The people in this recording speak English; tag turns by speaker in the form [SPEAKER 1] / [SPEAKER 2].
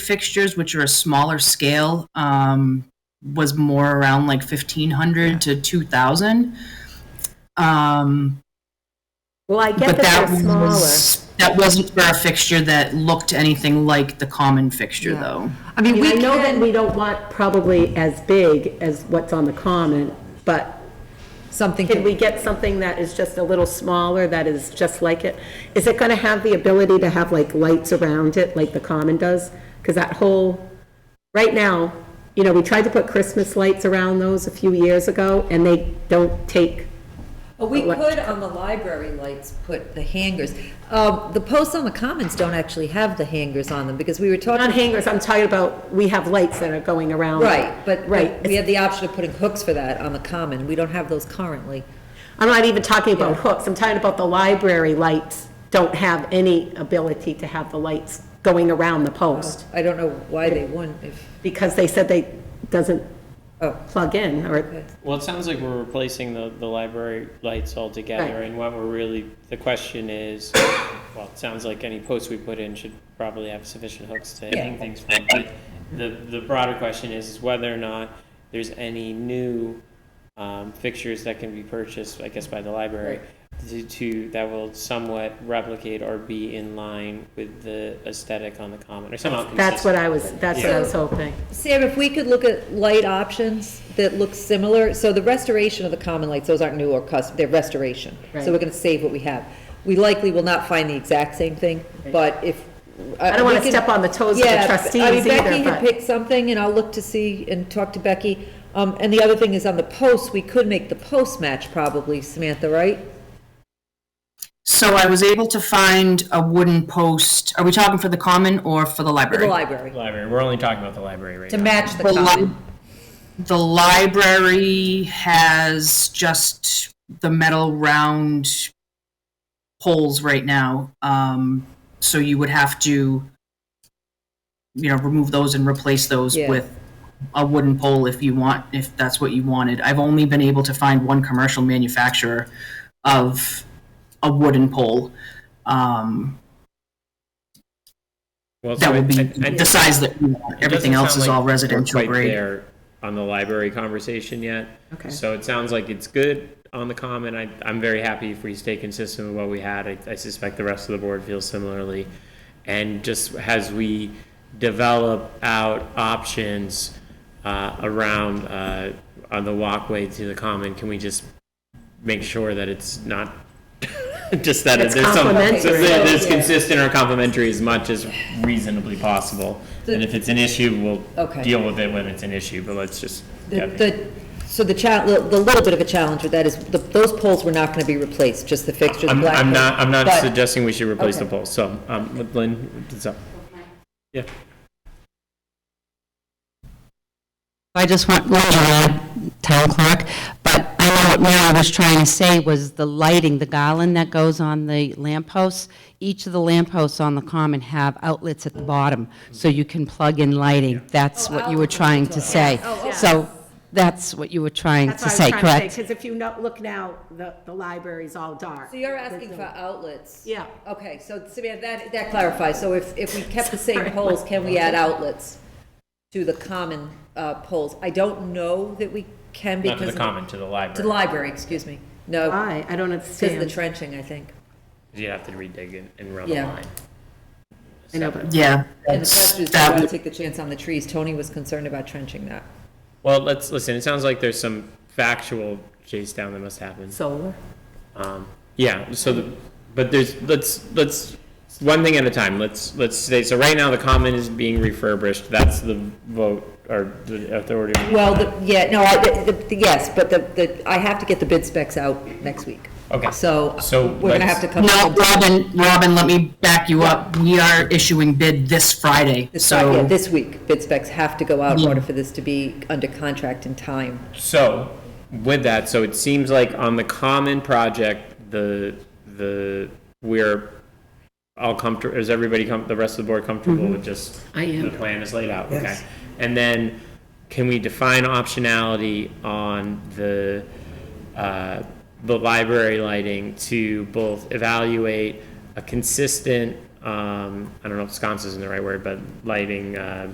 [SPEAKER 1] fixtures, which are a smaller scale, um, was more around like fifteen hundred to two thousand. Um,
[SPEAKER 2] Well, I get
[SPEAKER 1] but
[SPEAKER 2] that
[SPEAKER 1] that
[SPEAKER 2] they're smaller.
[SPEAKER 1] was that wasn't for a fixture that looked anything like the common fixture,
[SPEAKER 3] Yeah.
[SPEAKER 1] though.
[SPEAKER 3] I mean,
[SPEAKER 2] And
[SPEAKER 3] we
[SPEAKER 2] I know that
[SPEAKER 3] can,
[SPEAKER 2] we don't want probably as big as what's on the common, but
[SPEAKER 3] something,
[SPEAKER 2] can we
[SPEAKER 3] can-
[SPEAKER 2] get something that is just a little smaller, that is just like it? Is it gonna have the ability to have like lights around it, like the common does? Because that whole, right now, you know, we tried to put Christmas lights around those a few years ago, and they don't take,
[SPEAKER 4] Well, We
[SPEAKER 2] Elect-
[SPEAKER 4] could on the library lights put the hangers. Um, The posts on the commons don't actually have the hangers on them because we were talking.
[SPEAKER 2] not hangers, I'm talking about, we have lights that are going around.
[SPEAKER 4] Right, but
[SPEAKER 2] Right.
[SPEAKER 4] but we had the option of putting hooks for that on the common. We don't have those currently.
[SPEAKER 2] I'm not even talking about hooks, I'm talking about the library lights don't have any ability to have the lights going around the post,
[SPEAKER 4] I don't know why they wouldn't if,
[SPEAKER 2] because they said they, doesn't
[SPEAKER 4] oh,
[SPEAKER 2] plug in, or,
[SPEAKER 5] Well, it sounds like we're replacing the, the library lights altogether,
[SPEAKER 2] Right.
[SPEAKER 5] and what we're really, the question is, well, it sounds like any posts we put in should probably have sufficient hooks to hang things from, but the, the broader question is, is whether or not there's any new, um, fixtures that can be purchased, I guess, by the library to, to, that will somewhat replicate or be in line with the aesthetic on the common, or somehow consistent.
[SPEAKER 2] that's what I was, that's what I was hoping.
[SPEAKER 4] Sam, if we could look at light options that look similar, so the restoration of the common lights, those aren't new or custom, they're restoration.
[SPEAKER 2] Right.
[SPEAKER 4] So we're gonna save what we have. We likely will not find the exact same thing, but if.
[SPEAKER 2] I don't wanna
[SPEAKER 4] we can-
[SPEAKER 2] step on the toes of the
[SPEAKER 4] Yeah, I
[SPEAKER 2] trustees
[SPEAKER 4] mean, Becky
[SPEAKER 2] either,
[SPEAKER 4] had
[SPEAKER 2] but,
[SPEAKER 4] picked something, and I'll look to see and talk to Becky. Um, and the other thing is on the posts, we could make the post match probably, Samantha, right?
[SPEAKER 1] So I was able to find a wooden post. Are we talking for the common or for the
[SPEAKER 4] For the
[SPEAKER 1] library?
[SPEAKER 4] library,
[SPEAKER 5] Library, we're only talking about the library right
[SPEAKER 4] to match the
[SPEAKER 1] The li-
[SPEAKER 4] common.
[SPEAKER 1] The library has just the metal round poles right now. Um, so you would have to, you know, remove those and replace those
[SPEAKER 4] Yeah.
[SPEAKER 1] with a wooden pole if you want, if that's what you wanted. I've only been able to find one commercial manufacturer of a wooden pole. Um,
[SPEAKER 5] Well,
[SPEAKER 1] that
[SPEAKER 5] so
[SPEAKER 1] would be
[SPEAKER 5] I- I-
[SPEAKER 1] the size that you want.
[SPEAKER 5] It
[SPEAKER 1] Everything
[SPEAKER 5] doesn't
[SPEAKER 1] else
[SPEAKER 5] sound
[SPEAKER 1] is
[SPEAKER 5] like
[SPEAKER 1] all
[SPEAKER 5] we're
[SPEAKER 1] residential
[SPEAKER 5] quite
[SPEAKER 1] grade.
[SPEAKER 5] there On the library conversation yet.
[SPEAKER 2] Okay.
[SPEAKER 5] So it sounds like it's good on the common. I, I'm very happy if we stay consistent with what we had. I, I suspect the rest of the board feels similarly. And just as we develop out options, uh, around, uh, on the walkway to the common, can we just make sure that it's not, just that
[SPEAKER 2] It's
[SPEAKER 5] there's some,
[SPEAKER 2] complementary.
[SPEAKER 5] that there's
[SPEAKER 4] Yeah.
[SPEAKER 5] consistent or complimentary as much as reasonably possible. And if it's an issue, we'll
[SPEAKER 4] Okay.
[SPEAKER 5] deal with it when it's an issue, but let's just.
[SPEAKER 4] The- The, so the cha, the the little bit of a challenge with that is, the- those poles were not going to be replaced, just the fixture, the
[SPEAKER 5] I'm,
[SPEAKER 4] black.
[SPEAKER 5] I'm not, I'm not
[SPEAKER 4] but-
[SPEAKER 5] suggesting we should replace the
[SPEAKER 4] Okay.
[SPEAKER 5] polls, so, um, with Lynn, it's up. Yeah,
[SPEAKER 6] I just want, well, you're not town clerk, but I know what Mary was trying to say was the lighting, the garland that goes on the lampposts. Each of the lampposts on the common have outlets at the bottom, so you can plug in lighting. That's what you were trying to say.
[SPEAKER 2] Oh,
[SPEAKER 6] So that's what you were trying
[SPEAKER 2] that's
[SPEAKER 6] to
[SPEAKER 2] what I was
[SPEAKER 6] say,
[SPEAKER 2] trying to say,
[SPEAKER 6] correct?
[SPEAKER 2] because if you no- look now, the, the library's all dark.
[SPEAKER 4] So you're asking for outlets?
[SPEAKER 2] Yeah.
[SPEAKER 4] Okay, so Samantha, that, that clarifies, so if, if we kept the same poles, can we add outlets to the common uh, poles? I don't know that we can
[SPEAKER 5] not
[SPEAKER 4] because.
[SPEAKER 5] to the
[SPEAKER 4] of-
[SPEAKER 5] common, to
[SPEAKER 4] To the
[SPEAKER 5] the library,
[SPEAKER 4] library, excuse me,
[SPEAKER 1] Ah,
[SPEAKER 4] no,
[SPEAKER 2] Why? I don't
[SPEAKER 4] because of the
[SPEAKER 2] understand.
[SPEAKER 4] trenching, I think.
[SPEAKER 5] you have to redig and, and run the
[SPEAKER 4] Yeah.
[SPEAKER 5] line.
[SPEAKER 2] I know, but
[SPEAKER 1] Yeah.
[SPEAKER 4] And the
[SPEAKER 1] that's-
[SPEAKER 4] question is, do you
[SPEAKER 1] that
[SPEAKER 4] want to
[SPEAKER 1] would-
[SPEAKER 4] take the chance on the trees? Tony was concerned about trenching that.
[SPEAKER 5] Well, let's, listen, it sounds like there's some factual chase down that must happen.
[SPEAKER 2] Solar?
[SPEAKER 5] Um, yeah, so, the- but there's, let's, let's, one thing at a time, let's, let's say, so right now the common is being refurbished, that's the vote, or the authority.
[SPEAKER 4] Well, the- yeah, no, I, the- the- yes, but the, the, I have to get the bid specs out next week.
[SPEAKER 5] Okay.
[SPEAKER 4] So,
[SPEAKER 5] So
[SPEAKER 4] we're gonna have to
[SPEAKER 5] let's-
[SPEAKER 4] come.
[SPEAKER 1] No,
[SPEAKER 4] up with-
[SPEAKER 1] Robin, Robin, let me back you up. We are issuing bid this Friday,
[SPEAKER 4] This, yeah,
[SPEAKER 1] so
[SPEAKER 4] this week, bid specs have to go out in
[SPEAKER 1] Yeah.
[SPEAKER 4] order for this to be under contract in time.
[SPEAKER 5] So, with that, so it seems like on the common project, the, the, we're all comfortable, is everybody com, the rest of the board comfortable with just?
[SPEAKER 2] Mm-hmm. I am.
[SPEAKER 5] The plan is laid out, okay. And then, can we define optionality on the, uh, the library lighting to both evaluate a consistent um, I don't know if sconce isn't the right word, but lighting, uh,